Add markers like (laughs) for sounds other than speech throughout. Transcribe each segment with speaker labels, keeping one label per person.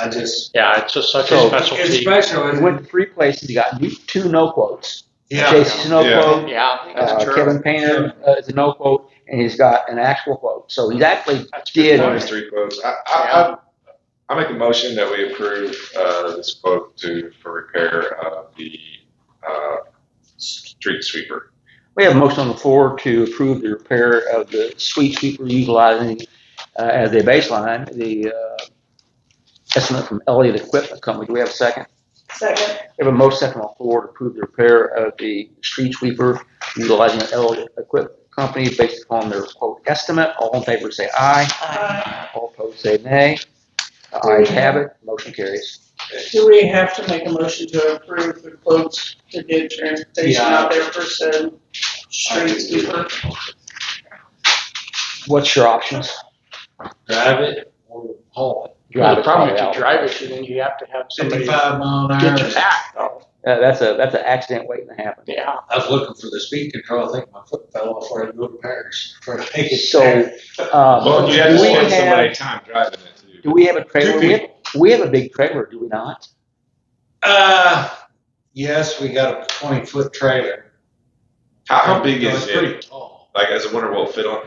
Speaker 1: I just,
Speaker 2: Yeah, it's just such a
Speaker 3: So-
Speaker 1: it's
Speaker 2: specialty.
Speaker 1: special,
Speaker 3: We
Speaker 1: and,
Speaker 3: went three places, you got you- two no quotes.
Speaker 1: yeah,
Speaker 3: J.C.'s no
Speaker 4: Yeah.
Speaker 3: quote,
Speaker 2: Yeah,
Speaker 3: uh,
Speaker 2: that's
Speaker 3: Kevin
Speaker 2: true.
Speaker 3: Painter uh, is a no quote, and he's got an actual quote. So he's actually
Speaker 2: That's
Speaker 3: did.
Speaker 4: Minus three quotes. I, I, I, I make a motion that we approve, uh, this quote to, for repair of the, uh, street sweeper.
Speaker 3: We have a motion on the floor to approve the repair of the sweet sweeper utilizing uh, as a baseline, the uh, estimate from Elliott Equipment Company. Do we have a second?
Speaker 5: Second.
Speaker 3: We have a motion second on the floor to approve the repair of the street sweeper utilizing Elliott Equipment Company based upon their quote estimate. All in favor say aye.
Speaker 5: Uh,
Speaker 3: All opposed say nay. The ayes have it. Motion carries.
Speaker 5: Do we have to make a motion to approve the quotes to get transportation out there for some street sweeper?
Speaker 3: What's your options?
Speaker 1: drive it or haul it.
Speaker 2: Well, The problem
Speaker 3: it probably
Speaker 2: if you
Speaker 3: out.
Speaker 2: drive it, then you have to have somebody get
Speaker 1: Fifty-five mile an hour.
Speaker 2: you back though.
Speaker 3: Uh, That's a, that's an accident waiting to happen.
Speaker 2: Yeah.
Speaker 1: I was looking for the speed control, I think my foot fell off where I go to Paris. before I make it
Speaker 3: So,
Speaker 1: there.
Speaker 3: uh,
Speaker 4: Well, you have to
Speaker 3: do we
Speaker 4: spend so
Speaker 3: have-
Speaker 4: many time driving it
Speaker 3: Do
Speaker 4: too.
Speaker 3: we have a trailer?
Speaker 1: Two
Speaker 3: We have, we have a big trailer, do we not?
Speaker 1: Uh, yes, we got a twenty-foot trailer.
Speaker 4: How, how big
Speaker 1: No,
Speaker 4: is
Speaker 1: It's
Speaker 4: it?
Speaker 1: pretty tall.
Speaker 4: Like, as a wonder will it fit on?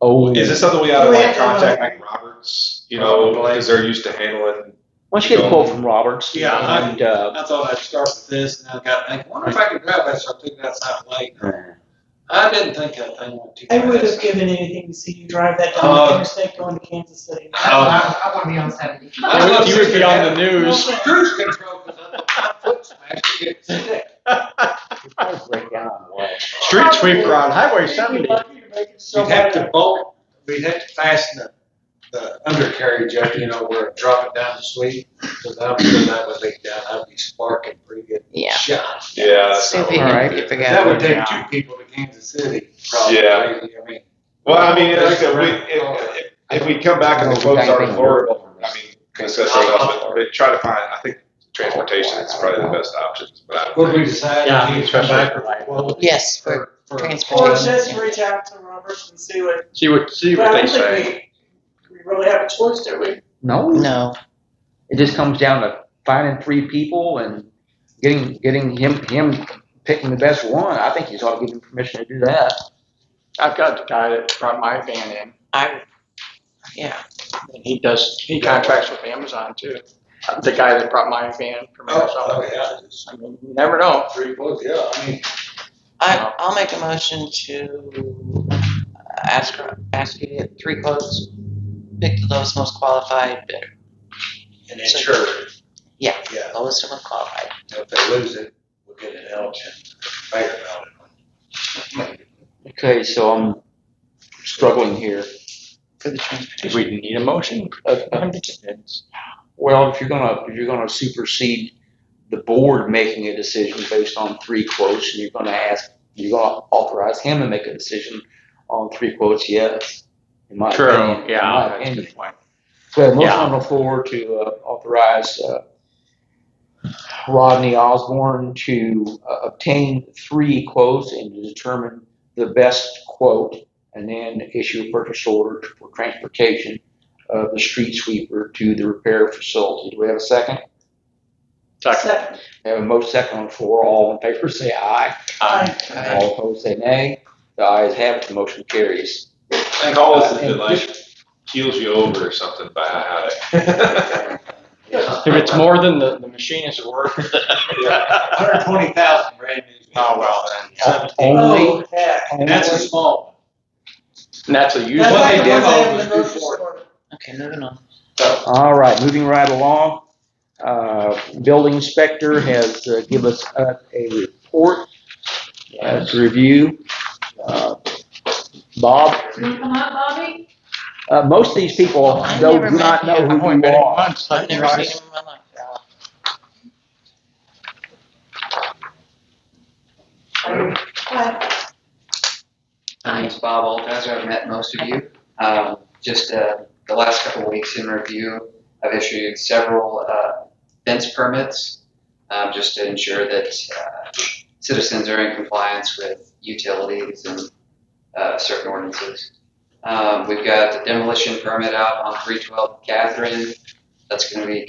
Speaker 3: Oh,
Speaker 4: Is this something we ought to
Speaker 5: We
Speaker 4: like
Speaker 5: have to-
Speaker 4: contact like Roberts, you know, because they're used to handling?
Speaker 3: why don't you get a quote from Roberts?
Speaker 1: Yeah, I-
Speaker 3: And, uh,
Speaker 1: I thought I'd start with this, and I got, I wonder if I could drive that, so I took it outside late. I didn't think that thing went too
Speaker 5: I
Speaker 1: fast.
Speaker 5: would have given anything to see you drive that down
Speaker 1: Uh,
Speaker 5: the interstate going to Kansas City.
Speaker 6: I want to be on seventy.
Speaker 1: I was
Speaker 2: You would be
Speaker 1: (laughs)
Speaker 2: on the
Speaker 1: Cruise
Speaker 2: news.
Speaker 1: control, because I thought my foot smashed against the stick.
Speaker 3: it'd probably break down on the way.
Speaker 2: Street sweeper on Highway
Speaker 5: You're
Speaker 2: 70.
Speaker 5: lucky you're making so
Speaker 1: We'd have to
Speaker 5: much.
Speaker 1: bolt, we'd have to fasten the, the undercarriage up, you know, where it drop it down the sweep. Cause I'm sure that would leak down, I'd be sparking pretty good
Speaker 7: Yeah.
Speaker 1: shots.
Speaker 4: Yeah. that's
Speaker 7: See if
Speaker 4: not
Speaker 7: you
Speaker 4: what
Speaker 3: Alright.
Speaker 7: can
Speaker 4: we
Speaker 7: keep
Speaker 4: do.
Speaker 7: it
Speaker 1: That
Speaker 7: going.
Speaker 1: would take
Speaker 2: Yeah.
Speaker 1: two people to Kansas City, probably.
Speaker 4: Yeah.
Speaker 1: I mean,
Speaker 4: Well, I mean, like I said, we, if, if, if we come back and the quotes are horrible, I mean, discuss something else, but, but try to find, I think transportation is probably the best option, but I
Speaker 1: Would
Speaker 4: don't
Speaker 1: we
Speaker 4: know.
Speaker 1: decide?
Speaker 2: Yeah,
Speaker 1: if you come
Speaker 2: especially
Speaker 1: back
Speaker 2: for
Speaker 1: or-
Speaker 2: life.
Speaker 1: well,
Speaker 7: Yes, for
Speaker 1: for- for-
Speaker 5: Or
Speaker 7: transportation.
Speaker 5: just reach out to Roberts and see what,
Speaker 2: See what, see
Speaker 5: but
Speaker 2: what
Speaker 5: I
Speaker 2: they
Speaker 5: don't
Speaker 2: say.
Speaker 5: think we, we really have a choice, do we?
Speaker 3: No,
Speaker 7: No,
Speaker 3: it just comes down to finding three people and getting, getting him, him picking the best one. I think you ought to give him permission to do that.
Speaker 2: I've got the guy that brought my van in
Speaker 7: I, yeah,
Speaker 2: and he does, he contracts with Amazon too. The guy that brought my van from
Speaker 1: Oh,
Speaker 2: Amazon.
Speaker 1: oh, yeah, just
Speaker 2: I mean, you never know.
Speaker 1: three bullets, Oh, yeah, I mean,
Speaker 7: I, I'll make a motion to uh, ask, ask you to get three quotes, pick the lowest most qualified bidder,
Speaker 1: and insured.
Speaker 7: Yeah.
Speaker 1: Yeah,
Speaker 7: lowest and most qualified.
Speaker 1: if they lose it, we'll get an election, mayor ballot.
Speaker 3: Okay, so I'm struggling here.
Speaker 7: For the transportation.
Speaker 2: We need a motion.
Speaker 3: Uh, uh, Well, if you're gonna, if you're gonna supersede the board making a decision based on three quotes, and you're gonna ask, you're gonna authorize him to make a decision on three quotes, yes. in my opinion,
Speaker 2: True,
Speaker 3: in my
Speaker 2: yeah, that's a
Speaker 3: opinion.
Speaker 2: good point.
Speaker 3: So a motion
Speaker 2: Yeah.
Speaker 3: on the floor to uh, authorize uh, Rodney Osborne to uh, obtain three quotes and to determine the best quote and then issue a purchase order for transportation of the street sweeper to the repair facility. Do we have a second?
Speaker 2: Second.
Speaker 5: Second.
Speaker 3: We have a motion second on the floor. All in favor say aye.
Speaker 2: Aye.
Speaker 3: All opposed say nay. The ayes have it. The motion carries.
Speaker 4: And all this is like, heals you over or something by how it.
Speaker 2: If it's more than the, the machine is worth.
Speaker 4: (laughs)
Speaker 1: Hundred twenty thousand brand new.
Speaker 2: Oh, well, then,
Speaker 1: Seventeen.
Speaker 3: Only-
Speaker 5: Oh, heck.
Speaker 1: And that's a small
Speaker 2: And that's a used
Speaker 1: That's
Speaker 2: one.
Speaker 1: what
Speaker 5: That's
Speaker 1: they demo
Speaker 5: like the ones they have in
Speaker 1: was
Speaker 5: the grocery
Speaker 1: before.
Speaker 5: store.
Speaker 7: Okay, moving on.
Speaker 3: All right, moving right along. Uh, Building inspector has uh, give us uh, a report uh, to review. Uh, Bob,
Speaker 6: Come on, Bobby.
Speaker 3: uh, most of these people
Speaker 7: I've
Speaker 3: don't,
Speaker 7: never
Speaker 3: do not
Speaker 7: met
Speaker 3: know
Speaker 7: him.
Speaker 2: I've
Speaker 3: who
Speaker 2: only
Speaker 3: you
Speaker 2: been in
Speaker 3: are.
Speaker 2: once.
Speaker 7: I've never
Speaker 2: I've-
Speaker 7: seen him in my life.
Speaker 5: Hi.
Speaker 6: My name's Bob Altizer. I've met most of you. Um, just uh, the last couple of weeks in review, I've issued several uh, fence permits um, just to ensure that uh, citizens are in compliance with utilities and uh, certain ordinances. Um, we've got the demolition permit out on 312 Catherine. That's going to be